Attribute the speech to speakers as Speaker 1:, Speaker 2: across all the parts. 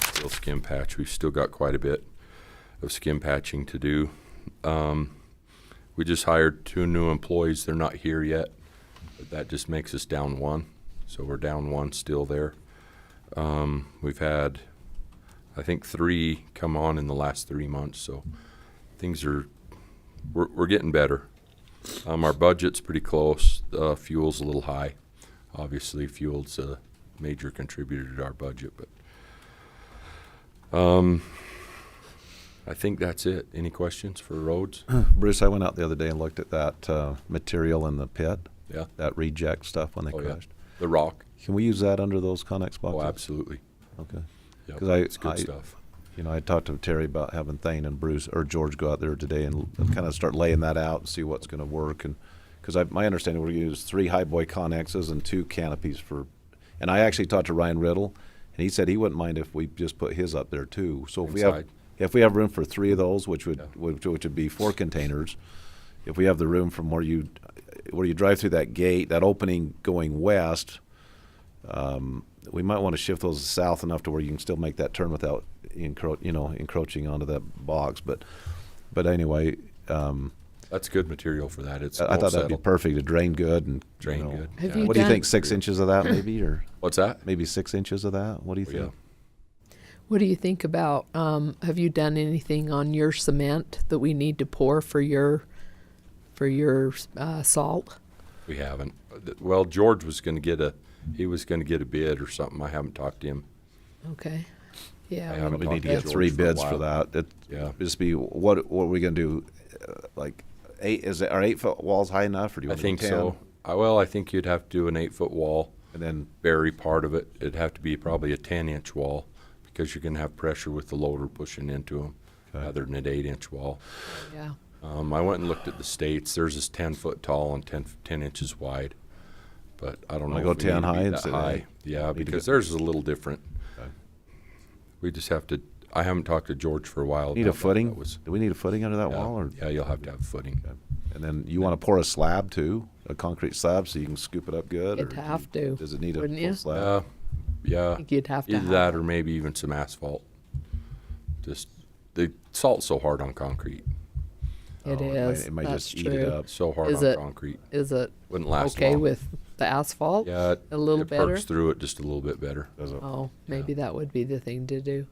Speaker 1: skin patch. We've still got quite a bit of skin patching to do. Um, we just hired two new employees. They're not here yet. But that just makes us down one. So we're down one still there. Um, we've had, I think, three come on in the last three months. So things are, we're, we're getting better. Um, our budget's pretty close. Uh, fuel's a little high. Obviously, fuel's a major contributor to our budget, but um, I think that's it. Any questions for roads?
Speaker 2: Bruce, I went out the other day and looked at that uh, material in the pit,
Speaker 1: Yeah,
Speaker 2: that reject stuff when they
Speaker 1: Oh, yeah.
Speaker 2: crushed.
Speaker 1: the rock.
Speaker 2: Can we use that under those Connex
Speaker 1: Oh,
Speaker 2: boxes?
Speaker 1: absolutely.
Speaker 2: Okay.
Speaker 1: Yeah,
Speaker 2: 'Cause I-
Speaker 1: it's good
Speaker 2: I-
Speaker 1: stuff.
Speaker 2: You know, I talked to Terry about having Thane and Bruce or George go out there today and kind of start laying that out and see what's going to work. And because my understanding, we're going to use three high boy Connexes and two canopies for. And I actually talked to Ryan Riddle, and he said he wouldn't mind if we just put his up there too. So if we have
Speaker 1: Inside.
Speaker 2: if we have room for three of those, which would
Speaker 1: Yeah.
Speaker 2: which, which would be four containers, if we have the room from where you where you drive through that gate, that opening going west, um, we might want to shift those south enough to where you can still make that turn without encro- you know encroaching onto that box. But but anyway, um,
Speaker 1: That's good material for that. It's
Speaker 2: I, I
Speaker 1: won't
Speaker 2: thought that'd be
Speaker 1: settle.
Speaker 2: perfect to drain good and you
Speaker 1: Drain
Speaker 2: know.
Speaker 1: good.
Speaker 3: Have
Speaker 1: Yeah.
Speaker 3: you
Speaker 2: What do you
Speaker 3: done-
Speaker 2: think? Six inches of that maybe, or
Speaker 1: What's that?
Speaker 2: maybe six inches of that. What do you
Speaker 1: Oh,
Speaker 2: think?
Speaker 1: yeah.
Speaker 3: What do you think about? Um, have you done anything on your cement that we need to pour for your for your uh, salt?
Speaker 1: We haven't. Uh, th- Well, George was going to get a, he was going to get a bid or something. I haven't talked to him.
Speaker 3: Okay.
Speaker 1: I
Speaker 3: Yeah.
Speaker 1: haven't
Speaker 2: we need
Speaker 1: talked
Speaker 2: to get
Speaker 1: George
Speaker 2: three
Speaker 1: for a
Speaker 2: bids for
Speaker 1: while.
Speaker 2: that. It,
Speaker 1: Yeah.
Speaker 2: Just be, what, what are we gonna do? Uh, Like, eight, is it, are eight foot walls high enough or do you
Speaker 1: I
Speaker 2: want to go
Speaker 1: think
Speaker 2: ten?
Speaker 1: so. I, well, I think you'd have to do an eight-foot wall.
Speaker 2: And then,
Speaker 1: bury part of it. It'd have to be probably a ten-inch wall because you're gonna have pressure with the loader pushing into them
Speaker 2: Okay.
Speaker 1: rather than an eight-inch wall.
Speaker 3: Yeah.
Speaker 1: Um, I went and looked at the states. There's this ten-foot tall and 10 10 inches wide. But I don't know.
Speaker 2: Wanna go
Speaker 1: if we need
Speaker 2: 10
Speaker 1: to be
Speaker 2: high
Speaker 1: that
Speaker 2: instead of
Speaker 1: high.
Speaker 2: eight?
Speaker 1: Yeah,
Speaker 2: Need to
Speaker 1: because
Speaker 2: go-
Speaker 1: theirs is a little different.
Speaker 2: Okay.
Speaker 1: We just have to, I haven't talked to George for a while.
Speaker 2: need
Speaker 1: about
Speaker 2: a
Speaker 1: that.
Speaker 2: footing?
Speaker 1: That was-
Speaker 2: Do we need a footing under that
Speaker 1: yeah,
Speaker 2: wall or?
Speaker 1: Yeah, you'll have to have footing.
Speaker 2: Okay. And then you wanna pour a slab too, a concrete slab so you can scoop it up good? or
Speaker 3: You'd
Speaker 2: do you-
Speaker 3: have to,
Speaker 2: Does it need a
Speaker 3: wouldn't you?
Speaker 2: full slab?
Speaker 1: Uh, yeah.
Speaker 3: I think you'd have to.
Speaker 1: Either
Speaker 3: have
Speaker 1: that or maybe even some asphalt. Just, the salt's so hard on concrete,
Speaker 2: Oh,
Speaker 3: It
Speaker 2: might-
Speaker 3: is.
Speaker 2: It might
Speaker 3: That's
Speaker 2: just eat
Speaker 3: true.
Speaker 2: it up.
Speaker 1: so hard
Speaker 3: Is
Speaker 1: on
Speaker 3: it-
Speaker 1: concrete.
Speaker 3: Is it
Speaker 1: Wouldn't last
Speaker 3: okay
Speaker 1: long.
Speaker 3: with the asphalt?
Speaker 1: Yeah. it-
Speaker 3: a little
Speaker 1: it
Speaker 3: better.
Speaker 1: Perks through it just a little bit better.
Speaker 2: Does it?
Speaker 3: Oh, maybe that would be the thing to do.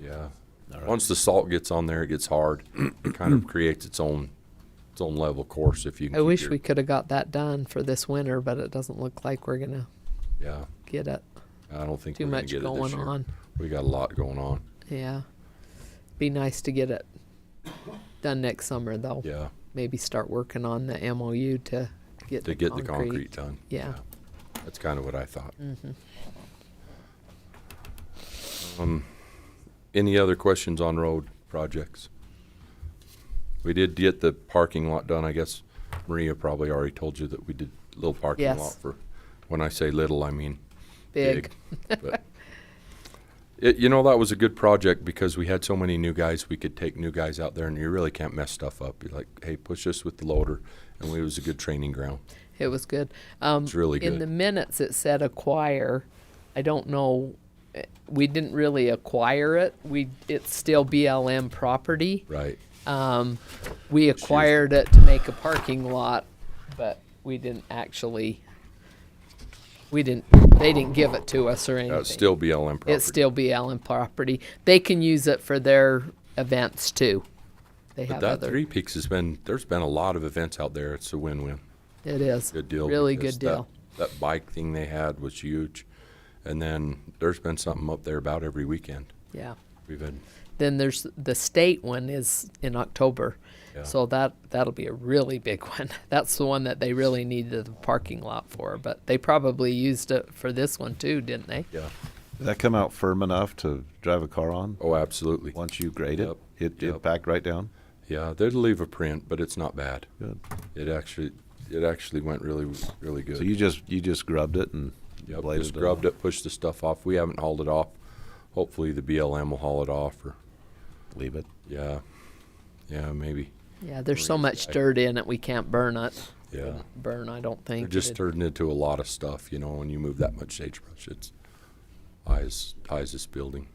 Speaker 1: Yeah.
Speaker 2: All right.
Speaker 1: Once the salt gets on there, it gets hard. It kind of creates its own, its own level course if you can.
Speaker 3: I
Speaker 1: keep
Speaker 3: wish
Speaker 1: your-
Speaker 3: we could have got that done for this winter, but it doesn't look like we're gonna
Speaker 1: Yeah.
Speaker 3: get it.
Speaker 1: I don't think
Speaker 3: Too
Speaker 1: we're gonna
Speaker 3: much
Speaker 1: get it this
Speaker 3: going
Speaker 1: year.
Speaker 3: on.
Speaker 1: We got a lot going on.
Speaker 3: Yeah. Be nice to get it done next summer though.
Speaker 1: Yeah.
Speaker 3: Maybe start working on the MOU to get
Speaker 1: To
Speaker 3: the
Speaker 1: get the
Speaker 3: concrete.
Speaker 1: concrete done.
Speaker 3: Yeah.
Speaker 1: That's kind of what I thought.
Speaker 3: Mhm. Mm-hmm.
Speaker 1: Um, any other questions on road projects? We did get the parking lot done. I guess Maria probably already told you that we did little parking
Speaker 3: Yes.
Speaker 1: lot for, when I say little, I mean
Speaker 3: Big.
Speaker 1: but it, you know, that was a good project because we had so many new guys. We could take new guys out there, and you really can't mess stuff up. You're like, hey, push this with the loader, and we- it was a good training ground.
Speaker 3: It was good. Um,
Speaker 1: It's really
Speaker 3: In
Speaker 1: good.
Speaker 3: the minutes, it said acquire. I don't know. eh, We didn't really acquire it. We it's still BLM property.
Speaker 1: Right?
Speaker 3: Um, we acquired it to make a parking lot, but we didn't actually. We didn't. They didn't give it to us or anything.
Speaker 1: That's still BLM property.
Speaker 3: It's still BLM property. They can use it for their events too. They
Speaker 1: But
Speaker 3: have
Speaker 1: that
Speaker 3: other.
Speaker 1: Three Peaks has been. There's been a lot of events out there. It's a win-win.
Speaker 3: it is
Speaker 1: Good deal.
Speaker 3: Really
Speaker 1: because
Speaker 3: good deal.
Speaker 1: That, that bike thing they had was huge, and then there's been something up there about every weekend.
Speaker 3: Yeah.
Speaker 1: We've had
Speaker 3: Then there's the state one is in October.
Speaker 1: Yeah.
Speaker 3: So that that'll be a really big one. That's the one that they really needed the parking lot for, but they probably used it for this one too, didn't they?
Speaker 1: yeah.
Speaker 2: Did that come out firm enough to drive a car on?
Speaker 1: Oh, absolutely.
Speaker 2: Once you grade it,
Speaker 1: Yep,
Speaker 2: it,
Speaker 1: yep.
Speaker 2: it backed right down?
Speaker 1: Yeah, they'd leave a print, but it's not bad.
Speaker 2: Good.
Speaker 1: It actually, it actually went really, really good.
Speaker 2: So you just, you just grubbed it and
Speaker 1: Yep,
Speaker 2: bladed
Speaker 1: just
Speaker 2: it
Speaker 1: grubbed it, pushed the stuff off. We haven't hauled it off. Hopefully the BLM will haul it off or,
Speaker 2: Leave it.
Speaker 1: yeah, yeah, maybe,
Speaker 3: Yeah, there's so
Speaker 1: Breeze
Speaker 3: much
Speaker 1: guy.
Speaker 3: dirt in it we can't burn it.
Speaker 1: yeah.
Speaker 3: Burn, I don't think.
Speaker 1: It just
Speaker 3: It-
Speaker 1: turned into a lot of stuff, you know, when you move that much sagebrush, it's high as, high as this building.